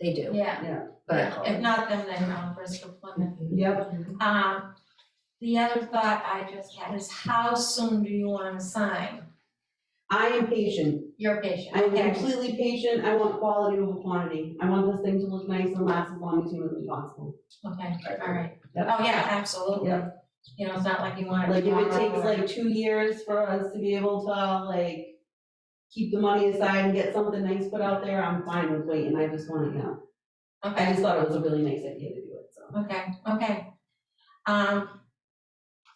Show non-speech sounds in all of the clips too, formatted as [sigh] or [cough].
They do, Yeah, but. if not them, then um, Bristol Plymouth. Yep, Um, the other thought I just had is how soon do you want to sign I am patient, your patient? I'm Okay. completely patient, I want quality over quantity, I want this thing to look nice and last as long as humanly possible. Okay, all right. Yep. Oh, yeah, absolutely. Yep. You know, it's not like you want. Like, if it tomorrow takes or- like two years for us to be able to, like, keep the money aside and get something nice put out there, I'm fine with waiting, I just want to know. I Okay, just thought it was a really nice idea to do it, so. okay, okay. Um,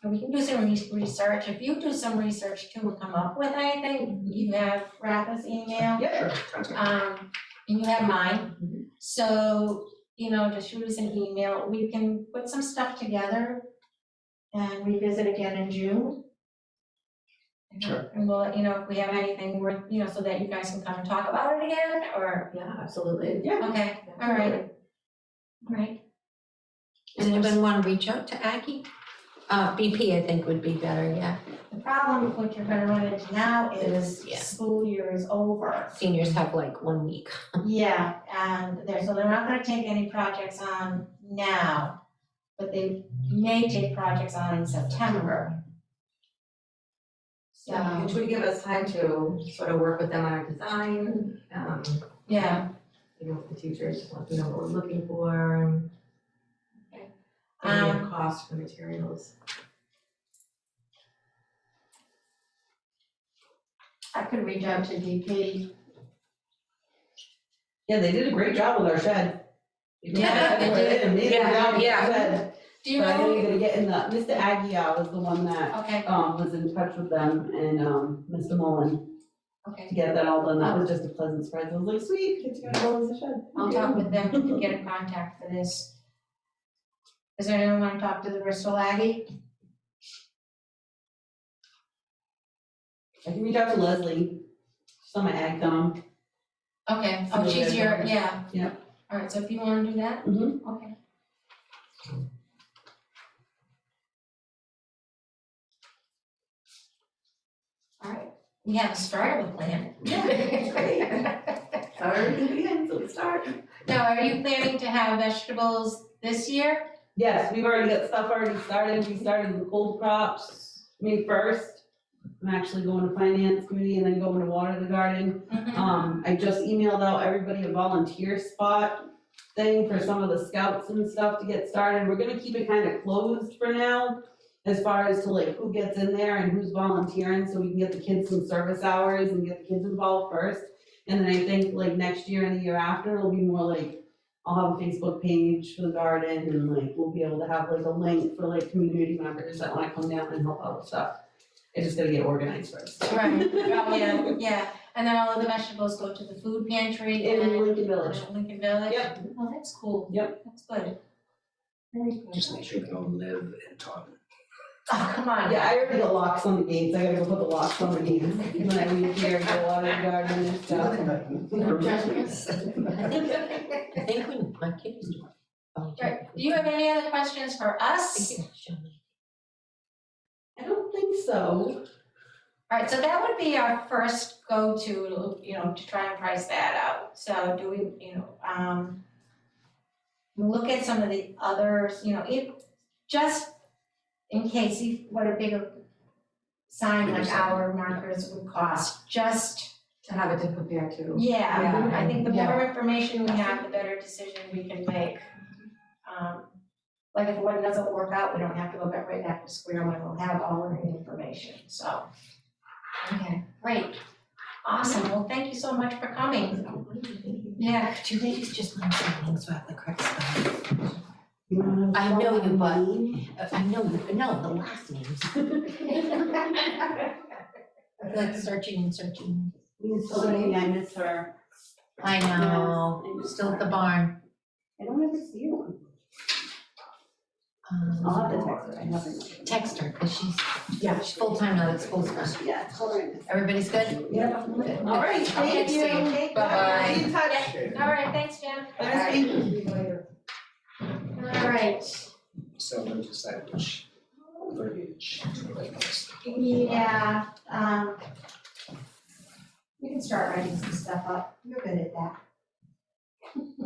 so we can do some re- research. If you do some research too, come up with anything, you have Rafa's email. Yeah. Uh, Um, and you have mine, Mhm. so, you know, just shoot us an email, we can put some stuff together and revisit again in June. And- Sure. And we'll, let you know, if we have anything worth, you know, so that you guys can come and talk about it again, or, Yeah, absolutely. Yeah. okay, all right, all right. Does anyone want to reach out to Aggie? Uh, BP, I think would be better, yeah. The problem with what you're gonna run into now is Yeah. school year is over. Seniors have like one week. [laughs] Yeah, and they're, so they're not gonna take any projects on now, but they may take projects on in September. So, Which would give us time to sort of work with them on our design, um, yeah, you know, the teachers, let them know what we're looking for, and um, Um, any cost for materials. I could reach out to DP. Yeah, they did a great job with our shed. They did- Yeah, they did. an Amazing Yeah, job with yeah. the shed, Do you but I know know, you're gonna get in the, Mr. Agia was the one that okay, um, was in touch with them and, um, Mr. Mullen okay, to get that all done. That was just a pleasant surprise. I was like, sweet, it's gonna go as a shed. I'll talk with them to get [laughs] a contact for this. Does anyone wanna talk to the Bristol Aggie? I can reach out to Leslie. She's on my ag com. Okay, oh, Somebody she's that- your, yeah. Mm-hmm. Yeah. All right, so if you wanna do that? Mhm. Okay. All right, we have started with [laughs] plan. So [laughs] everything begins, so we start. Now, are you planning to have vegetables this year? [laughs] Yes, we've already got stuff already started. We started the cold crops May first. I'm actually going to finance committee and then going to water the garden. [laughs] Mm-hmm. Um, I just emailed out everybody a volunteer spot thing for some of the scouts and stuff to get started. We're gonna keep it kind of closed for now as far as to like who gets in there and who's volunteering, so we can get the kids some service hours and get the kids involved first. And then I think like next year and the year after, it'll be more like, I'll have a Facebook page for the garden and like, we'll be able to have like a link for like community members that wanna come down and help out with stuff. I just gotta get organized first. Right, oh, yeah, yeah, and then all of the vegetables go to the food pantry and. In Lincoln Village. Lincoln Village? Yep. Oh, that's cool. Yep. That's good. Very good. Just make sure they don't live in Taunton. Oh, come on. Yeah, I already got locks on the gates, I gotta go put the locks on the gates, when I leave here, go out in the garden and stuff. [laughs] I think, I think when my kid was. oh, Right, do you have any other questions for us? Thank you, Shelley. I don't think so. All right, so that would be our first go-to, you know, to try and price that out. So do we, you know, um, look at some of the others, you know, it, just in case, if, what a bigger sign Bigger like sign, our markers would cost, just, To have it to compare to. yeah, I think the more Yeah. information we have, the better decision we can make. Um, like if one doesn't work out, we don't have to go back right back to square one, we'll have all of the information, so. Okay, great, awesome, well, thank you so much for coming. Yeah, Could you ladies just mind signing so I have the correct spelling? I I know you, but- Uh, I know, you- no, the last [laughs] names. Like searching and searching. Somebody, I miss her. I know, Yes, I know. still at the barn. I don't ever see you. Um, I'll have to text her, I haven't. Text her, because she's, Yeah. she's full-time now, that's full time. Yeah, tell her. I miss her. Everybody's good? Yeah. Good. All right, thank you. Okay, Bye-bye. Be in touch. all right, thanks, Jim, Nice meeting you. all right, So we decide which verbiage to write next. yeah, um. You can start writing some stuff up, you're good at that.